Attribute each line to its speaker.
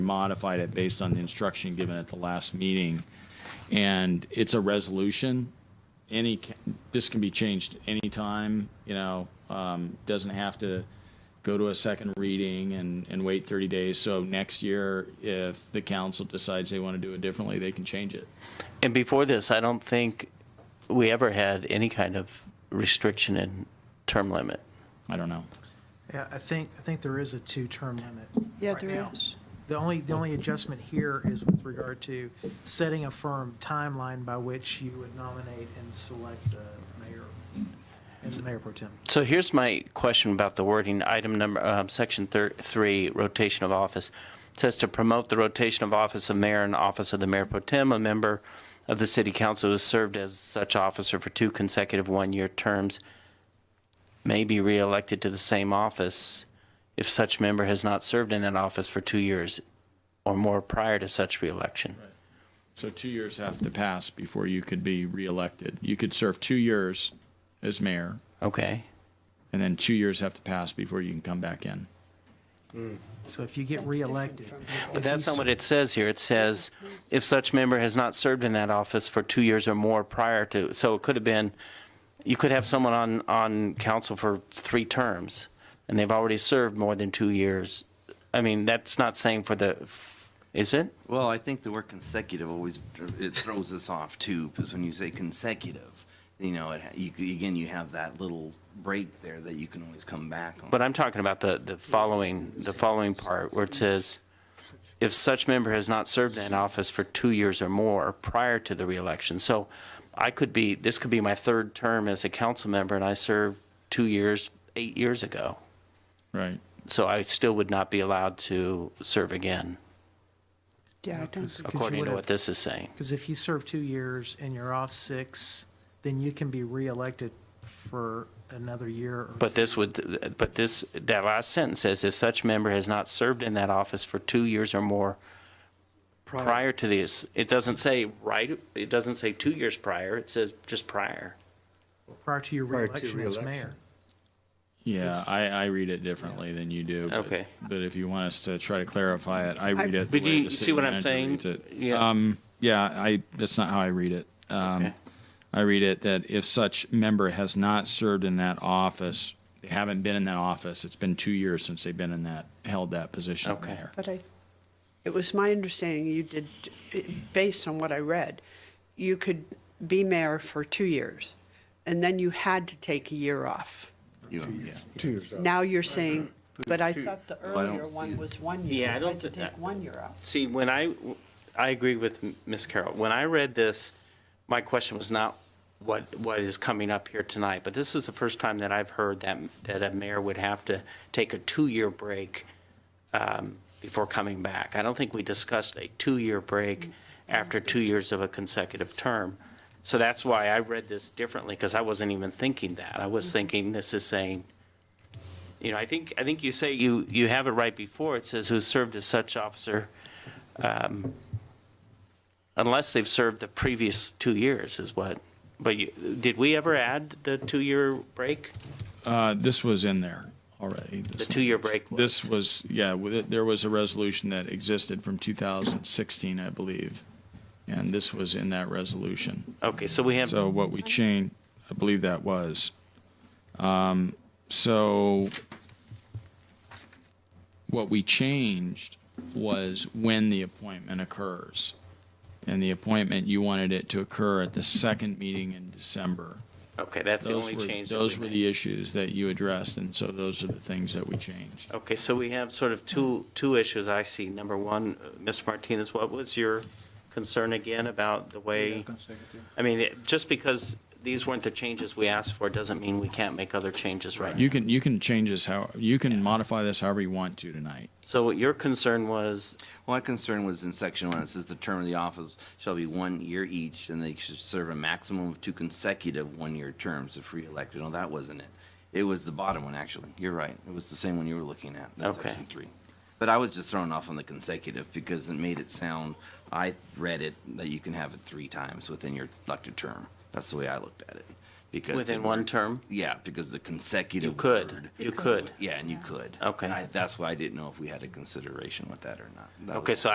Speaker 1: modified it based on the instruction given at the last meeting. And it's a resolution. Any, ca- this can be changed anytime, you know, um, doesn't have to go to a second reading and, and wait 30 days. So next year, if the council decides they want to do it differently, they can change it.
Speaker 2: And before this, I don't think we ever had any kind of restriction in term limit.
Speaker 1: I don't know.
Speaker 3: Yeah, I think, I think there is a two-term limit.
Speaker 4: Yeah,
Speaker 3: right
Speaker 4: there
Speaker 3: now.
Speaker 4: is.
Speaker 3: The only, the only adjustment here is with regard to setting a firm timeline by which you would nominate and select a mayor and the mayor pro tem.
Speaker 2: So here's my question about the wording, item number, um, section thir- three, rotation of office. It Says to promote the rotation of office of mayor and office of the mayor pro tem, a member of the city council who has served as such officer for two consecutive one-year terms may be reelected to the same office if such member has not served in that office for two years or more prior to such reelection.
Speaker 1: So two years have to pass before you could be reelected. You could serve two years as mayor,
Speaker 2: Okay?
Speaker 1: and then two years have to pass before you can come back in.
Speaker 3: So if you get reelected.
Speaker 2: But that's not what it says here. It says, if such member has not served in that office for two years or more prior to, so it could have been, you could have someone on, on council for three terms, and they've already served more than two years. I mean, that's not saying for the, is it?
Speaker 5: Well, I think the word consecutive always, it throws us off too, because when you say consecutive, you know, it, you, again, you have that little break there that you can always come back on.
Speaker 2: But I'm talking about the, the following, the following part where it says, if such member has not served in office for two years or more prior to the reelection. So I could be, this could be my third term as a council member and I served two years, eight years ago.
Speaker 1: Right.
Speaker 2: So I still would not be allowed to serve again,
Speaker 4: Yeah, I don't,
Speaker 2: according to what this is saying.
Speaker 3: Because if you serve two years and you're off six, then you can be reelected for another year. or-
Speaker 2: But this would, but this, that last sentence says, if such member has not served in that office for two years or more prior to this, it doesn't say right, it doesn't say two years prior, it says just prior.
Speaker 3: Prior to your reelection as mayor.
Speaker 1: Yeah, I, I read it differently than you do. but-
Speaker 2: Okay.
Speaker 1: But if you want us to try to clarify it, I read it. the
Speaker 2: But
Speaker 1: way
Speaker 2: do you
Speaker 1: the
Speaker 2: see
Speaker 1: city
Speaker 2: what I'm
Speaker 1: manager
Speaker 2: saying?
Speaker 1: reads it.
Speaker 2: Yeah.
Speaker 1: Um, yeah, I, that's not how I read it. Um,
Speaker 2: Okay.
Speaker 1: I read it that if such member has not served in that office, they haven't been in that office, it's been two years since they've been in that, held that position
Speaker 2: Okay.
Speaker 1: there.
Speaker 4: but I, it was my understanding you did, based on what I read, you could be mayor for two years, and then you had to take a year off.
Speaker 5: You- yeah.
Speaker 4: Now you're saying, but I thought the
Speaker 5: Well, I don't
Speaker 4: earlier
Speaker 5: see
Speaker 4: one
Speaker 5: it.
Speaker 4: was one
Speaker 2: Yeah,
Speaker 4: year.
Speaker 2: I
Speaker 4: You had
Speaker 2: don't
Speaker 4: to
Speaker 2: thi-
Speaker 4: Take one year off.
Speaker 2: See, when I, I agree with Ms. Carroll. When I read this, my question was not what, what is coming up here tonight, but this is the first time that I've heard that, that a mayor would have to take a two-year break um, before coming back. I don't think we discussed a two-year break after two years of a consecutive term. So that's why I read this differently, because I wasn't even thinking that. I was thinking this is saying you know, I think, I think you say you, you have it right before, it says who served as such officer, um, unless they've served the previous two years is what, but you, did we ever add the two-year break?
Speaker 1: Uh, this was in there already.
Speaker 2: The two-year break? was-
Speaker 1: This was, yeah, with it- there was a resolution that existed from 2016, I believe. And this was in that resolution.
Speaker 2: Okay, so we have,
Speaker 1: So what we changed, I believe that was. Um, So what we changed was when the appointment occurs. And the appointment, you wanted it to occur at the second meeting in December.
Speaker 2: okay, that's the
Speaker 1: Those
Speaker 2: only
Speaker 1: were-
Speaker 2: change that
Speaker 1: Those
Speaker 2: we
Speaker 1: were
Speaker 2: made.
Speaker 1: the issues that you addressed, and so those are the things that we changed.
Speaker 2: Okay, so we have sort of two, two issues I see. Number one, uh, Mr. Martinez, what was your concern again about the way? I mean, it- just because these weren't the changes we asked for, doesn't mean we can't make other changes right now.
Speaker 1: You can, you can change this how, you can modify this however you want to tonight.
Speaker 2: So what your concern was,
Speaker 5: My concern was in section one, it says the term of the office shall be one year each, and they should serve a maximum of two consecutive one-year terms if re-elected. No, that wasn't it. It was the bottom one, actually. You're right. It was the same one you were looking at. That's
Speaker 2: Okay.
Speaker 5: section three. But I was just thrown off on the consecutive because it made it sound, I read it, that you can have it three times within your elected term. That's the way I looked at it. because
Speaker 2: Within
Speaker 5: they
Speaker 2: one
Speaker 5: weren't-
Speaker 2: term?
Speaker 5: Yeah, because the consecutive
Speaker 2: You could,
Speaker 5: word-
Speaker 2: you could.
Speaker 5: Yeah, and you could.
Speaker 2: Okay.
Speaker 5: And I, that's why I didn't know if we had a consideration with that or not. That
Speaker 2: Okay,
Speaker 5: was-
Speaker 2: so